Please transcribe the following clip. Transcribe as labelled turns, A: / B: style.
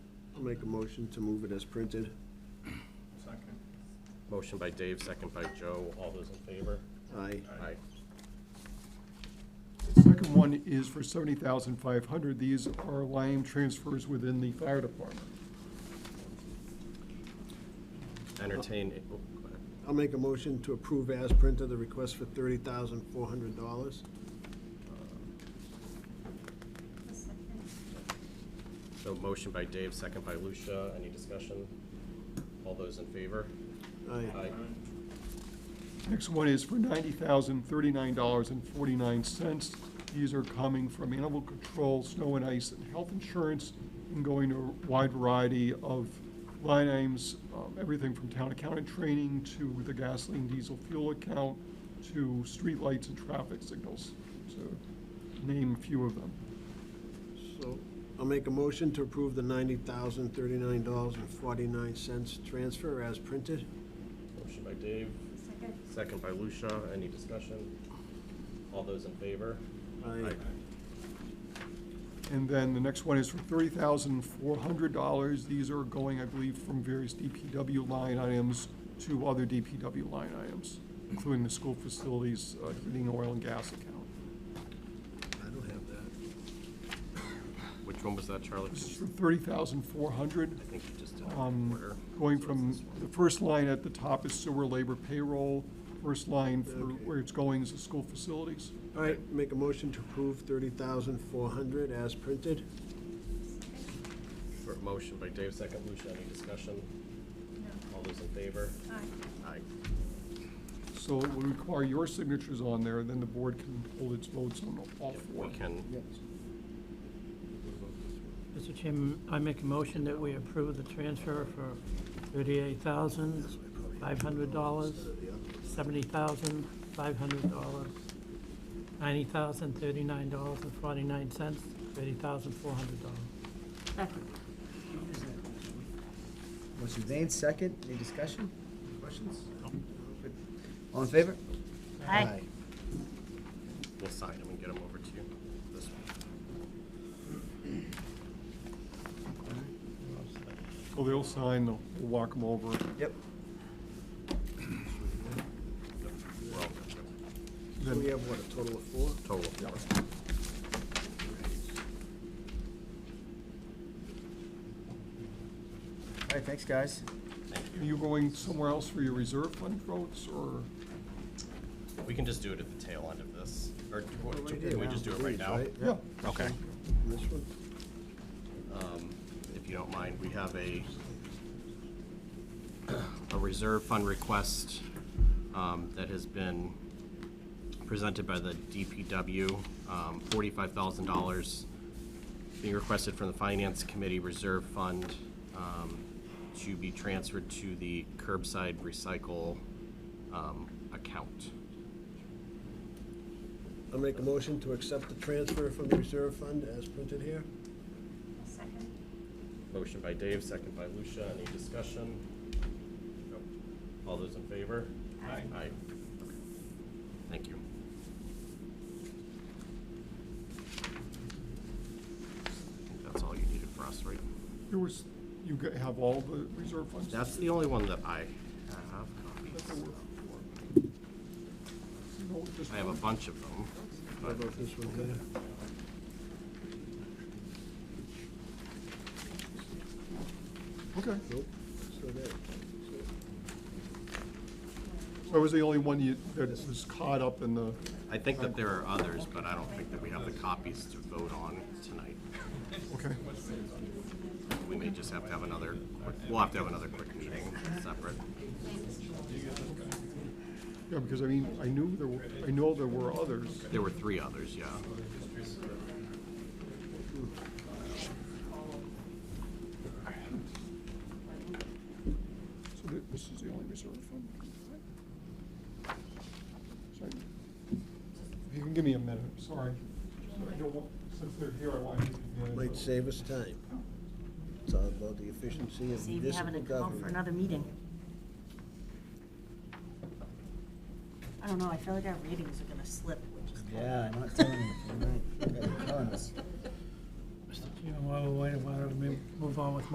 A: I'll make a motion to move it as printed.
B: Second.
C: Motion by Dave, second by Joe. All those in favor?
A: Aye.
C: Aye.
D: The Second one is for seventy thousand five hundred. These are line transfers within the fire department.
C: Entertain, oh, go ahead.
A: I'll make a motion to approve as printed the request for thirty thousand four hundred dollars.
C: so motion by Dave, second by Lucia. Any discussion? All those in favor?
A: Aye.
D: Next one is for ninety thousand thirty-nine dollars and forty-nine cents. These are coming from animal control, snow and ice, and health insurance, and going to a wide variety of line items, um, everything from town accountant training to the gasoline diesel fuel account to streetlights and traffic signals, to name a few of them.
A: So I'll make a motion to approve the ninety thousand thirty-nine dollars and forty-nine cents transfer as printed.
C: Motion by Dave,
E: Second.
C: second by Lucia. Any discussion? All those in favor?
A: Aye.
D: And then the next one is for thirty thousand four hundred dollars. These are going, I believe, from various DPW line items to other DPW line items, including the school facilities, uh, heating, oil, and gas account.
A: I don't have that.
C: Which one was that, Charlie?
D: This is for thirty thousand four hundred,
C: I think you just did it in order.
D: um, going
C: So
D: from,
C: it's this
D: the
C: one.
D: first line at the top is sewer labor payroll. First line for
A: Okay.
D: where it's going is the school facilities.
A: All right, make a motion to approve thirty thousand four hundred as printed.
C: For- Motion by Dave, second Lucia. Any discussion? All those in favor?
E: Aye.
C: Aye.
D: So it will require your signatures on there, then the board can hold its votes on all
C: If
D: four.
C: we can,
F: Mr. Chairman, I make a motion that we approve the transfer for thirty-eight thousand, five hundred dollars, seventy thousand, five hundred dollars, ninety thousand, thirty-nine dollars and forty-nine cents, thirty thousand, four hundred dollars.
E: Second.
G: Motion made, second, any discussion? Questions? All in favor?
E: Aye.
C: we'll sign them and get them over to you. This one.
D: So they'll sign, they'll we'll walk them over.
G: Yep.
C: We're all good.
A: So we have, what, a total of four?
C: Total of four.
G: All right, thanks, guys.
D: Are you going somewhere else for your reserve fund votes, or?
C: We can just do it at the tail end of this, or do- what-
A: Right
C: can we
A: here.
C: just do it right now?
A: Right?
D: Yeah.
C: Okay.
A: This one?
C: Um, If you don't mind, we have a, a reserve fund request um, that has been presented by the DPW, um, $45,000 being requested from the Finance Committee Reserve Fund um, to be transferred to the curbside recycle um, account.
A: I'll make a motion to accept the transfer from the reserve fund as printed here.
E: Second.
C: Motion by Dave, second by Lucia. Any discussion? Nope. All those in favor? Aye. Aye. Okay. Thank you. I think That's all you needed for us, right?
D: There was, you g- have all the reserve funds?
C: That's the only one that I have
D: That's
C: copies.
D: what we're for. You know, just-
C: I have a bunch of them.
A: How about this one here?
D: Okay,
A: Nope. So that,
D: so I was the only one you, that was caught up in the,
C: I think that there are others, but I don't think that we have the copies to vote on tonight.
D: okay.
C: We may just have to have another, quick- we'll have to have another quick meeting separate.
D: Yeah, because I mean, I knew there were, I know there were others.
C: There were three others, yeah.
D: So thi- this is the only reserve fund. Sorry. If you can give me a minute, sorry. I don't want, since they're here, I want to. give you a minute.
A: might save us time. It's all about the efficiency of
E: See if you
A: municipal
E: having to go for
A: government.
E: another meeting. I don't know, I feel like our ratings are gonna slip, which is kinda.
G: Yeah, I'm not telling you, you're right, you're telling us.
F: Mr. Chairman, while we're waiting, why don't we move on with